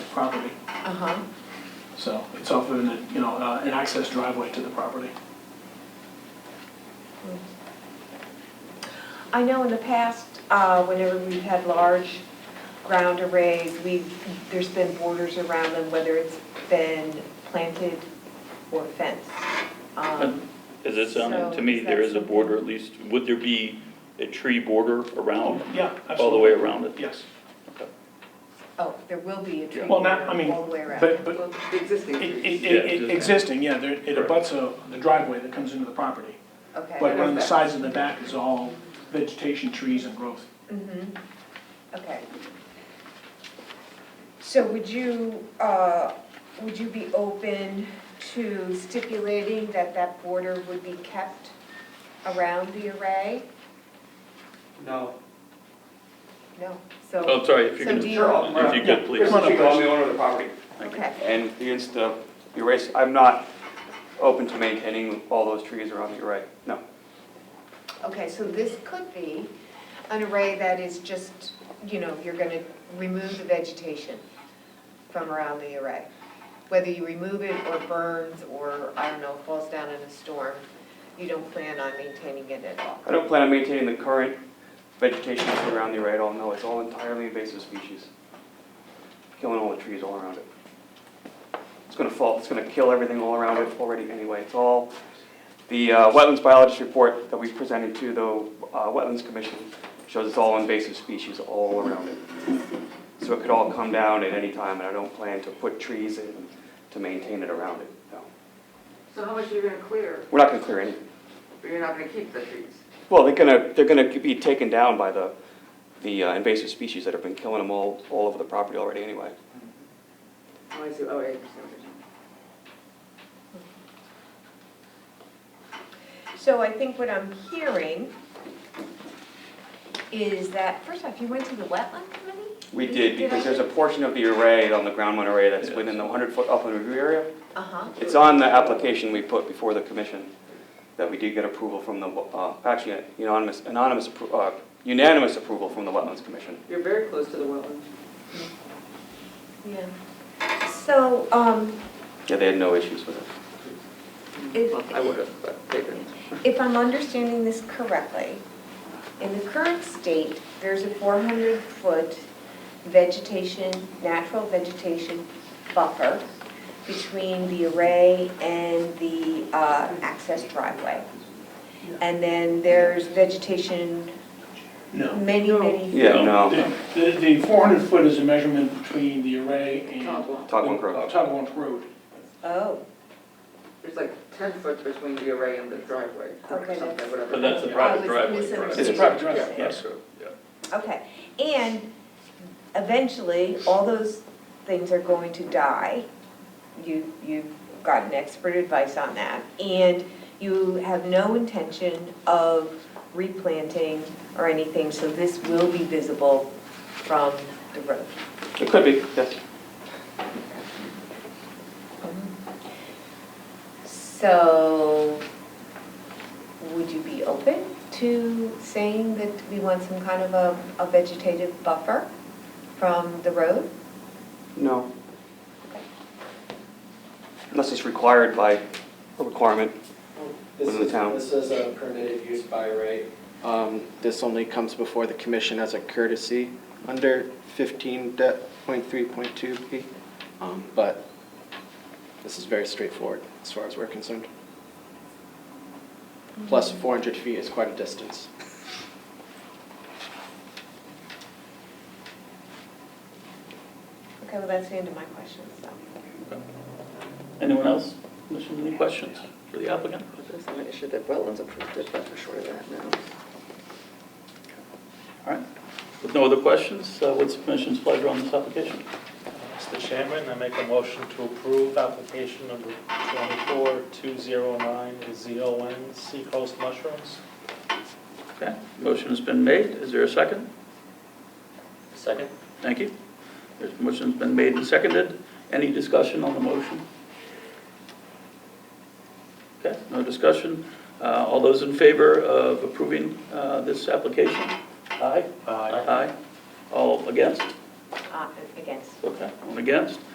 property. Uh-huh, So it's off of, an, you know, uh, an access driveway to the property. I know in the past, uh, whenever we've had large ground arrays, we've, there's been borders around them, whether it's been planted or fenced. Um, Is it sounding, So to me, is there that is a border at least, would there be a tree border around, Yeah, all the absolutely. way around it? Yes. Oh, there will be a tree Well, not- I border mean, all the way around. But, but Well, the existing it, trees. it- it, it, existing, yeah, there, it Correct. abuts a, the driveway that comes into the property. Okay, But on the sides and the back is all vegetation, trees and growth. mhm, okay. So would you, uh, would you be open to stipulating that that border would be kept around the array? No. No, so. Oh, sorry, if you So do can, you- Sure, I'll- if you could, please. Chris, Come on up, you go, I'm the owner of the property. Okay, And against the erase, I'm not open to maintaining all those trees around the array, no. okay, so this could be an array that is just, you know, you're gonna remove the vegetation from around the array. Whether you remove it or burns or, I don't know, falls down in a storm, you don't plan on maintaining it at all. I don't plan on maintaining the current vegetation that's around the array at all, no, it's all entirely invasive species. Killing all the trees all around it. It's gonna fall, it's gonna kill everything all around it already anyway, it's all, the uh, wetlands biologist report that we presented to the uh, Wetlands Commission shows it's all invasive species all around it. So it could all come down at any time, and I don't plan to put trees in to maintain it around it, no. So how much are you gonna clear, We're not gonna clear anything. but you're not gonna keep the trees? Well, they're gonna, they're gonna be taken down by the, the uh, invasive species that have been killing them all, all over the property already anyway. Oh, I see, oh, I understand what you're saying. So I think what I'm hearing is that, first off, you went to the wetland committee? We did, because there's a portion of the array on the ground mount array that's within the hundred foot upland review area. Uh-huh, It's on the application we put before the commission, that we did get approval from the, uh, actually anonymous, anonymous, appro- uh, unanimous approval from the wetlands commission. You're very close to the wetland. yeah. So, um, Yeah, they had no issues with it. if, Well, I would have, but they didn't. If I'm understanding this correctly, in the current state, there's a 400-foot vegetation, natural vegetation buffer between the array and the uh, access driveway. And then there's vegetation, No. many, many, Yeah, no, The, the- the 400 foot is a measurement between the array and. Togwall. Togwell Road. Uh, Togwell Road. oh, There's like ten foot between the array and the driveway, or Okay, something, that's- whatever. But that's a I private was driveway, correct? misunderstanding. It's a private driveway, Yeah. yes. Yeah. Okay, and eventually, all those things are going to die. You, you've gotten expert advice on that, and you have no intention of replanting or anything, so this will be visible from the road. it could be, yes. So, would you be open to saying that we want some kind of a, a vegetative buffer from the road? No. Unless it's required by a requirement. This Within the is- town. This is a permitted use by right. Um, This only comes before the commission as a courtesy under 15.3.2B. Um, But this is very straightforward as far as we're concerned. Plus, 400 feet is quite a distance. Okay, well, that's the end of my questions, so. Anyone else? Commission, Any questions for the applicant? There's some issue that wetlands approved it, but we're sure of that now. All right. With no other questions, uh, what's the commission's pleasure on this application? Mr. Chairman, I make a motion to approve application number 24209 ZON Seacoast Mushrooms. Okay, motion has been made. Is there a second? Second. Thank you. There's, motion's been made and seconded. Any discussion on the motion? Okay, no discussion. Uh, all those in favor of approving, uh, this application? Aye? Aye. Aye. All against? Uh, Against. Okay. One against?